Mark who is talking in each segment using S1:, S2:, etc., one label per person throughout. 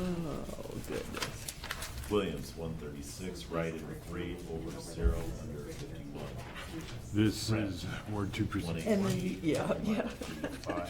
S1: Oh, goodness.
S2: Williams, one thirty-six, right in three, over zero, under fifty-one.
S3: This is Ward two
S2: One
S3: precinct,
S1: And then, you- yeah, yeah.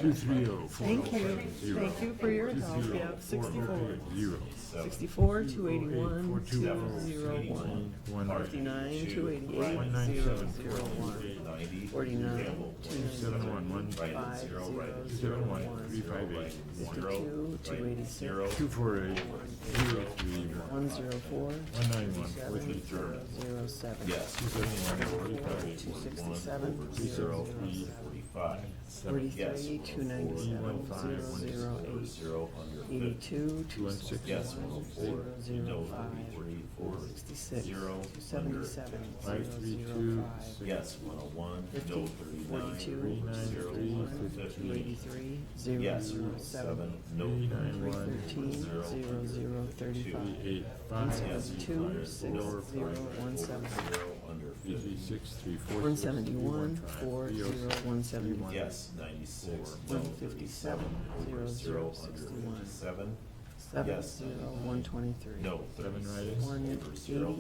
S3: two three oh four oh
S1: Thank you,
S3: seven zero. oh
S1: thank you for your help, yeah, sixty-four.
S3: Zero.
S1: Sixty-four, two
S3: Four
S1: eighty-one,
S3: two
S1: zero,
S3: oh.
S1: zero, one.
S3: One
S1: Fifty-nine, two
S3: One
S1: eighty-eight,
S3: nine
S1: zero,
S3: seven.
S1: zero, one.
S2: Ninety.
S1: Forty-nine,
S2: Campbell,
S1: two
S2: one
S1: ninety-seven,
S2: seven one,
S3: one
S2: Right in
S1: five,
S2: zero, right in
S1: zero,
S2: zero,
S3: Zero
S2: right
S3: one three five eight
S2: in
S3: one.
S2: zero,
S1: Fifty-two,
S2: right in
S1: 286,
S2: zero.
S3: Two four eight zero three one.
S1: One, zero, four,
S3: One nine one four
S1: seven,
S3: three
S1: zero,
S3: zero.
S1: zero, seven.
S2: Yes.
S3: Two seven one three five eight
S1: Two
S3: one.
S1: sixty-seven, zero,
S2: Zero,
S1: zero,
S2: three, forty-five. Yes.
S1: forty-three, two ninety-seven, zero, zero,
S2: Over
S1: eight.
S2: zero, under fifty.
S1: Eighty-two, two
S3: One six.
S2: Yes,
S1: sixty-one,
S2: one oh
S1: zero,
S2: four.
S1: zero,
S2: No,
S1: five,
S2: three, four.
S1: sixty-six,
S2: Zero,
S1: two
S2: under.
S1: seventy-seven, zero,
S3: Five three
S1: zero,
S3: two
S1: five.
S3: six.
S2: Yes, one oh one, no, thirty-nine,
S1: Forty-two,
S2: over zero, one
S3: three,
S1: Two
S2: fifty.
S1: eighty-three, zero,
S2: Yes, oh
S1: zero,
S2: seven,
S1: seven.
S2: no,
S3: Three nine
S1: Three
S3: one
S1: thirteen,
S2: Zero,
S1: zero, zero, thirty-five.
S3: Eight
S1: One
S3: five
S1: seven two,
S3: five
S1: six,
S3: four
S1: zero, one seven.
S2: zero, under
S3: eight
S2: fifty.
S3: six three four.
S1: One
S3: six three
S1: seventy-one,
S3: five
S1: four,
S3: three oh
S1: zero,
S3: six.
S1: one seventy-one.
S2: Yes, ninety-six, no,
S1: One fifty-seven,
S2: thirty-seven, over
S1: zero,
S2: zero,
S1: zero,
S2: under
S1: sixty-one.
S2: fifty-seven.
S1: Seven,
S2: Yes.
S1: zero, one twenty-three.
S2: No,
S3: Seven
S2: thirty-six,
S3: right
S2: over
S1: One, eighty,
S2: zero,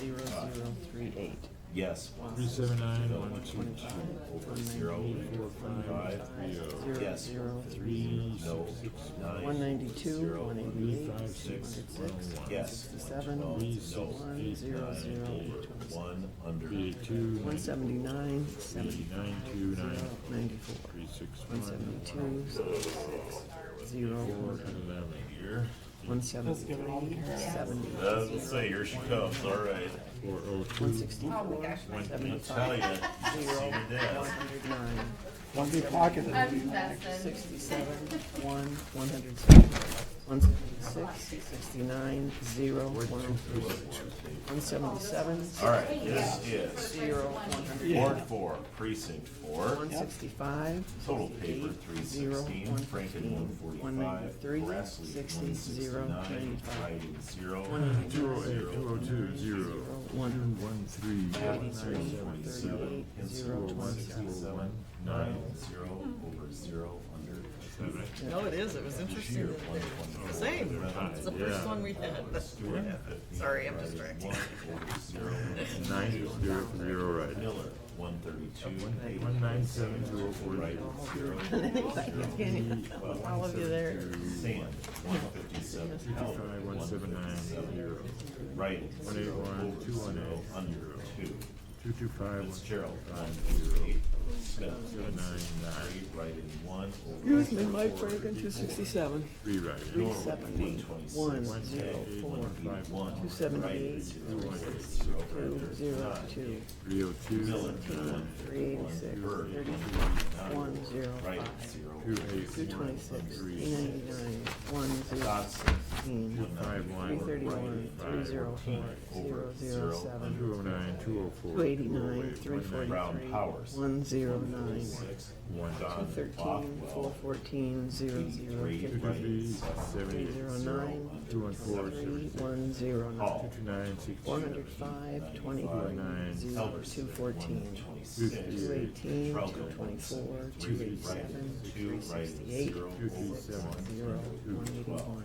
S1: zero,
S2: under
S1: zero, three, eight.
S2: Yes.
S3: Three seven nine
S2: No,
S3: one two
S2: twenty-two,
S3: two.
S2: Over zero,
S3: Four five
S2: twenty-five.
S3: three oh.
S1: Zero,
S2: Yes.
S1: zero,
S3: Three
S1: three,
S2: No,
S3: six six
S2: nine.
S1: one ninety-two,
S2: zero,
S1: one
S3: three,
S1: eighty-eight,
S3: five,
S1: two
S3: six,
S1: hundred
S3: one,
S1: six,
S3: one.
S1: one
S2: Yes.
S1: sixty-seven,
S2: One,
S3: Three,
S2: no,
S3: six,
S1: one,
S3: eight,
S1: zero,
S2: nine,
S1: zero,
S2: over
S1: eight twenty-seven.
S2: One, under.
S3: Three eight two.
S1: One seventy-nine, seventy-five,
S3: two,
S1: zero,
S3: nine.
S1: ninety-four.
S3: Three six
S1: One
S3: one.
S1: seventy-two, seventy-six, zero,
S3: Four
S1: one.
S3: eleven.
S2: Here.
S1: One seventy-three, seventy,
S2: Uh, let's say, here she comes, all right.
S3: Four oh two.
S1: one sixty-four,
S2: I tell
S1: seventy-five,
S2: ya, you, see
S1: zero,
S2: your
S1: one
S2: death.
S1: hundred nine,
S4: One big pocket.
S1: Um,
S5: I'm Besson.
S1: sixty-seven, one, one hundred seven, one seventy-six, sixty-nine, zero, one, one seventy-seven,
S2: All right, this is
S1: zero, one hundred,
S2: Ward Four, Precinct Four.
S1: one sixty-five,
S2: Total paper,
S1: sixty-eight,
S2: three
S1: zero,
S2: sixteen,
S1: one
S2: Franken
S1: fifteen,
S2: one
S1: one
S2: forty-five,
S1: ninety-three,
S2: Grassley
S1: sixty,
S2: one
S1: zero,
S2: sixty-nine,
S1: ninety-five,
S2: Ryden zero,
S3: Two oh eight, two oh two, zero.
S1: zero,
S3: Two
S1: one,
S3: one three.
S1: Ninety
S3: one
S1: three,
S3: nine seven
S1: thirty
S3: seven.
S1: eight, zero,
S3: Four one
S1: twenty.
S3: zero
S2: sixty-seven,
S3: one
S2: nine,
S3: nine
S2: zero, over zero, under
S3: seven.
S6: No, it is. It was interesting. that they're the Same. It's the first one we've had. but- Sorry, I'm distracted.
S2: One, over zero,
S3: Nine zero zero right.
S2: Miller, one thirty-two, eight,
S3: One nine seven two oh four
S2: Ryden
S3: zero.
S2: zero,
S6: All of you there.
S2: Sand, one fifty-seven, Halbert,
S3: Five
S2: one
S3: one seven nine
S2: fifty-seven,
S3: zero.
S2: Ryden
S3: One eight
S2: zero,
S3: one,
S2: over
S3: two one
S2: zero,
S3: eight.
S2: under two.
S3: Two two five one
S2: Fitzgerald, one zero eight, Smith,
S3: seven nine nine.
S2: three, Ryden one, over
S1: Excuse me, Mike Franken, two sixty-seven,
S3: Three right.
S1: three seventy, one, zero, four,
S2: five one.
S1: two seventy-eight, two, zero, two,
S3: Three oh two.
S1: seventeen, three eighty-six, thirty-three, one, zero,
S2: Right,
S1: five,
S2: zero.
S3: Two eight
S1: two twenty-six, three ninety-nine, one, zero,
S2: Dotson,
S1: sixteen,
S3: Five one.
S1: three thirty-one, three zero four, zero, zero, seven,
S3: Two oh nine, two oh four.
S1: Two eighty-nine, three
S2: Brown
S1: forty-three,
S2: Powers.
S1: one zero nine,
S2: six,
S3: One.
S1: two
S2: Don
S1: thirteen, four
S2: Bothwell,
S1: fourteen, zero zero
S2: three,
S3: Two
S1: fifty, three
S3: two three, seventy.
S1: zero nine,
S3: Two one four,
S1: three
S3: seventy.
S1: one zero
S3: Two
S1: nine,
S3: two nine, six.
S1: four hundred five, twenty-three, zero,
S2: Elverson,
S1: two fourteen,
S2: one
S3: Two
S2: twenty-six,
S1: two
S3: three eight.
S1: eighteen, two
S2: Trello, one
S1: twenty-four,
S2: seventy-three,
S1: two eight
S2: Ryden, two,
S1: seven, three
S2: Ryden,
S1: sixty-eight,
S2: zero,
S3: Two
S2: over
S3: three
S2: one,
S3: seven.
S1: zero,
S2: two,
S1: one
S2: twelve.
S1: eighty-one,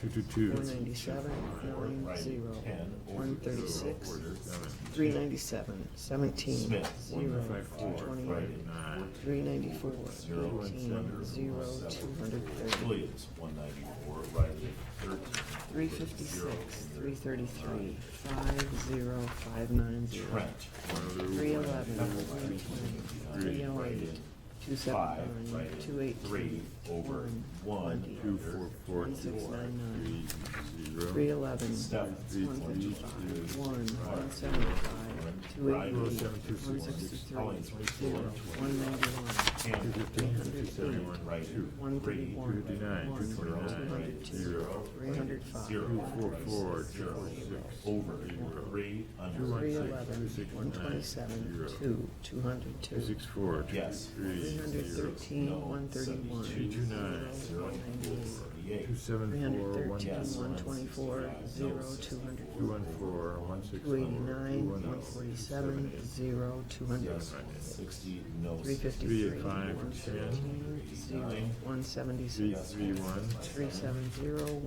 S3: Two two
S1: four
S3: two.
S1: ninety-seven, nine,
S2: Right,
S1: zero,
S2: ten, over
S1: one
S2: zero,
S1: thirty-six,
S2: order,
S3: Seven.
S1: three ninety-seven, seventeen,
S2: Smith,
S1: zero,
S3: five,
S1: two
S3: four,
S1: twenty-eight,
S2: Right,
S3: Nine.
S1: Three ninety-four,
S2: Zero,
S1: eighteen, zero, two hundred thirty,
S2: Williams, one ninety-four, Riley, thirteen.
S1: three fifty-six, three thirty-three, five, zero, five nine zero,
S2: Trent,
S1: three eleven, three twenty, three oh eight, two
S2: five,
S1: seven nine,
S2: right,
S1: two
S2: three,
S1: eighteen,
S2: over
S1: one,
S2: one,
S1: twenty,
S3: Two
S2: under
S3: four four.
S1: one six nine nine,
S3: Three zero.
S1: three eleven,
S2: Steph,
S1: one fifty-five, one, one seventy-five, two eighty, one sixty-three, zero, one ninety-one,
S3: Two
S2: Ham,
S3: fifteen, two seventy-one,
S2: Right,
S3: two.
S1: one
S2: three,
S1: thirty-one, one,
S3: Two nine, two
S1: two
S3: twenty-nine,
S1: hundred two,
S3: zero.
S1: three hundred five,
S2: zero,
S3: Two four four, two
S2: zero,
S3: four six.
S2: over, three,
S3: Two
S2: under,
S3: one
S1: Three
S3: six, two
S1: eleven,
S3: six
S1: one
S3: nine,
S1: twenty-seven,
S3: zero.
S1: two, two hundred
S3: Two
S1: two,
S3: six four, two
S2: Yes.
S1: three
S3: three,
S1: hundred
S3: zero.
S2: no,
S1: thirteen, one thirty-one,
S3: Two two
S1: zero,
S3: nine,
S2: zero,
S1: one ninety-eight,
S2: forty-eight.
S3: two seven
S1: three hundred
S3: four, one
S1: thirteen,
S3: six
S1: one
S3: one.
S1: twenty-four, zero, two hundred,
S3: Two one four, one six
S1: two
S3: one.
S1: eighty-nine, one forty-seven, zero, two hundred,
S2: Yes, sixty, no.
S1: three
S3: Three
S1: fifty-three,
S3: eight five,
S1: one
S3: ten.
S1: fifteen, zero, one
S3: Three
S1: seventy-six,
S3: three one.
S1: three seven zero,